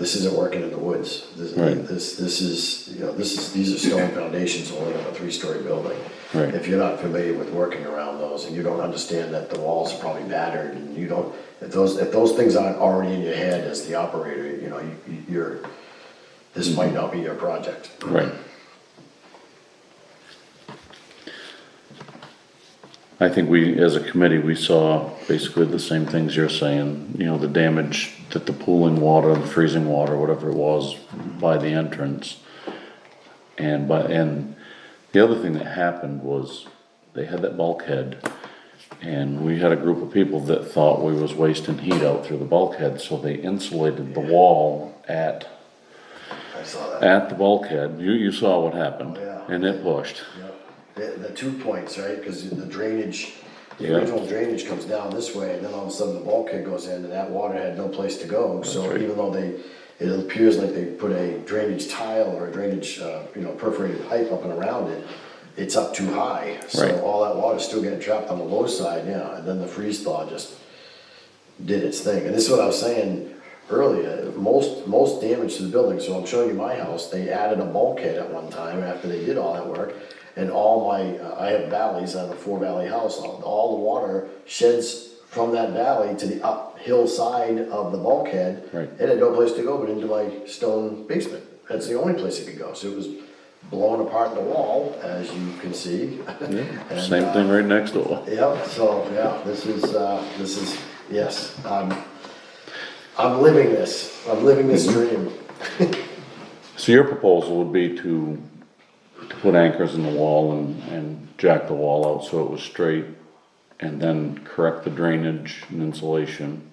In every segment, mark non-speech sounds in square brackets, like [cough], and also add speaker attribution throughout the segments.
Speaker 1: this isn't working in the woods. This,
Speaker 2: Right.
Speaker 1: this, this is, you know, this is, these are stone foundations only on a three-story building.
Speaker 2: Right.
Speaker 1: If you're not familiar with working around those and you don't understand that the walls are probably battered and you don't, if those, if those things aren't already in your head as the operator, you know, you- you- you're, this might not be your project.
Speaker 2: Right. I think we, as a committee, we saw basically the same things you're saying, you know, the damage that the pooling water, the freezing water, whatever it was by the entrance. And by, and the other thing that happened was they had that bulkhead and we had a group of people that thought we was wasting heat out through the bulkhead, so they insulated the wall at
Speaker 1: I saw that.
Speaker 2: at the bulkhead, you, you saw what happened,
Speaker 1: Oh, yeah.
Speaker 2: and it pushed.
Speaker 1: Yep. The, the two points, right, because the drainage, the
Speaker 2: Yeah.
Speaker 1: original drainage comes down this way, and then all of a sudden the bulkhead goes in, and that water had no place to go, so
Speaker 2: right.
Speaker 1: even though they, it appears like they put a drainage tile or a drainage, uh, you know, perforated pipe up and around it, it's up too high,
Speaker 2: Right.
Speaker 1: so all that water's still getting trapped on the low side, yeah, and then the freeze thaw just did its thing, and this is what I was saying earlier, most, most damage to the building, so I'm showing you my house, they added a bulkhead at one time after they did all that work, and all my, uh, I have valleys, I have a four valley house, all, all the water sheds from that valley to the uphill side of the bulkhead.
Speaker 2: Right.
Speaker 1: It had no place to go but into my stone basement, that's the only place it could go, so it was blown apart the wall, as you can see. [laughs] And,
Speaker 2: Same
Speaker 1: uh,
Speaker 2: thing right next door.
Speaker 1: Yep, so, yeah, this is, uh, this is, yes, I'm, I'm living this, I'm living this dream.
Speaker 2: So your proposal would be to, to put anchors in the wall and, and jack the wall out so it was straight, and then correct the drainage and insulation.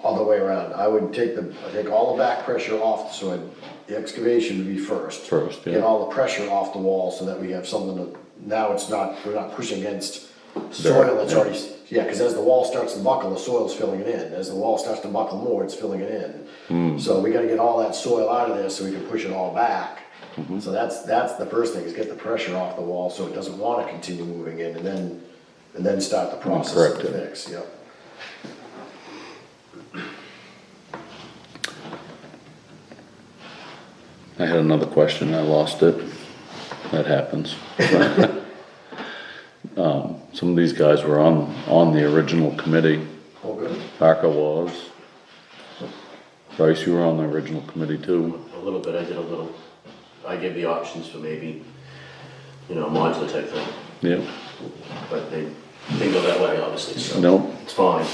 Speaker 1: All the way around, I would take the, I take all the back pressure off, so I'd- the excavation would be first.
Speaker 2: First, yeah.
Speaker 1: Get all the pressure off the wall so that we have something to, now it's not, we're not pushing against soil that's
Speaker 2: yeah.
Speaker 1: already, yeah, cause as the wall starts to buckle, the soil's filling it in, as the wall starts to buckle more, it's filling it
Speaker 2: Hmm.
Speaker 1: in. So we gotta get all that soil out of there so we can push it all back.
Speaker 2: Mm-hmm.
Speaker 1: So that's, that's the first thing, is get the pressure off the wall so it doesn't wanna continue moving in, and then, and then start the process
Speaker 2: correct
Speaker 1: to
Speaker 2: it.
Speaker 1: fix, yep.
Speaker 2: I had another question, I lost it. That happens. [laughs] Um, some of these guys were on, on the original committee.
Speaker 1: All good?
Speaker 2: Parker was. Bryce, you were on the original committee too.
Speaker 3: a little bit, I did a little, I gave the options for maybe, you know, modular type thing,
Speaker 2: Yep.
Speaker 3: but they didn't go that way, obviously, so.
Speaker 2: Nope.
Speaker 3: It's fine,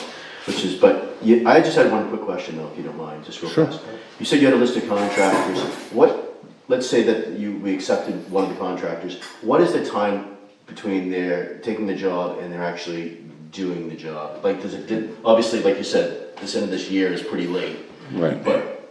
Speaker 3: which is, but, you- I just had one quick question though, if you don't mind, just real
Speaker 2: Sure.
Speaker 3: fast. You said you had a list of contractors, what, let's say that you, we accepted one of the contractors, what is the time between their taking the job and they're actually doing the job? Like, does it, did, obviously, like you said, this end of this year is pretty late.
Speaker 2: Right.
Speaker 3: But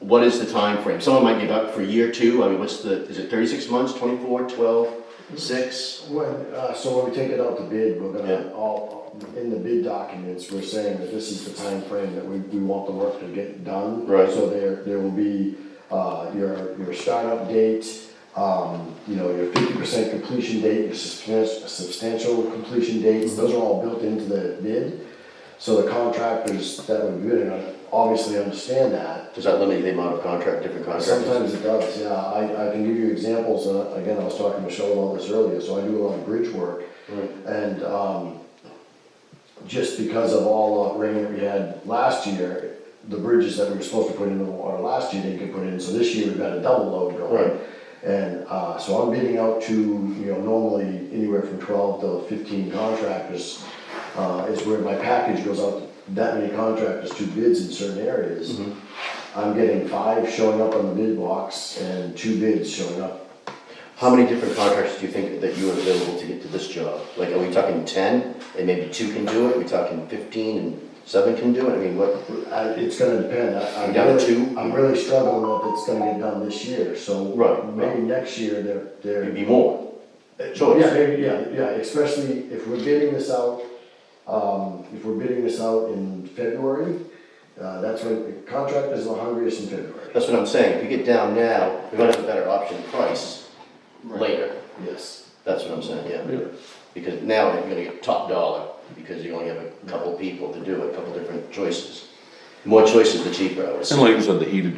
Speaker 3: what is the time frame? Someone might give up for year two, I mean, what's the, is it thirty-six months, 24, 12, 6?
Speaker 1: When, uh, so when we take it out to bid, we're gonna,
Speaker 3: Yeah.
Speaker 1: all, in the bid documents, we're saying that this is the time frame that we, we want the work to get done.
Speaker 3: Right.
Speaker 1: So there, there will be, uh, your, your startup date, um, you know, your fifty percent completion date, your substan- substantial completion
Speaker 3: Mm-hmm.
Speaker 1: dates, those are all built into the bid. So the contractors that would be bidding on, it obviously understand that,
Speaker 3: Does that limit the amount of contract, different contractors?
Speaker 1: Sometimes it does, yeah. I, I can give you examples, uh, again, I was talking to Michelle about this earlier, so I do a lot of bridge work. And, um, just because of all the rain that we had last year, the bridges that we were supposed to put in the water last year didn't get put in, so this year we've got a double load
Speaker 3: Right.
Speaker 1: going. And, uh, so I'm bidding out to, you know, normally anywhere from twelve to fifteen contractors, uh, is where my package goes out to that many contractors, two bids in certain areas. I'm getting five showing up on the bid box and two bids showing up.
Speaker 3: How many different contractors do you think that you are available to get to this job? Like, are we talking ten, and maybe two can do it, are we talking fifteen and seven can do it, I mean, what?
Speaker 1: I, it's gonna depend, I, I'm
Speaker 3: Down to
Speaker 1: really,
Speaker 3: two?
Speaker 1: I'm really struggling if it's gonna get done this year, so.
Speaker 3: Right, right.
Speaker 1: Maybe next year, they're, they're.
Speaker 3: It'd be more
Speaker 1: Uh, Yeah,
Speaker 3: choice,
Speaker 1: maybe, yeah, yeah, especially if we're bidding this out, um, if we're bidding this out in February, uh, that's when, the contractors is the hungriest in February.
Speaker 3: that's what I'm saying, if you get down now, we might have a better option price later.
Speaker 1: Yes.
Speaker 3: That's what I'm saying, yeah. Because now you're gonna get top dollar, because you only have a couple people to do it, a couple different choices.
Speaker 4: The More choices, the cheaper, I would say.
Speaker 3: And like you said, the heated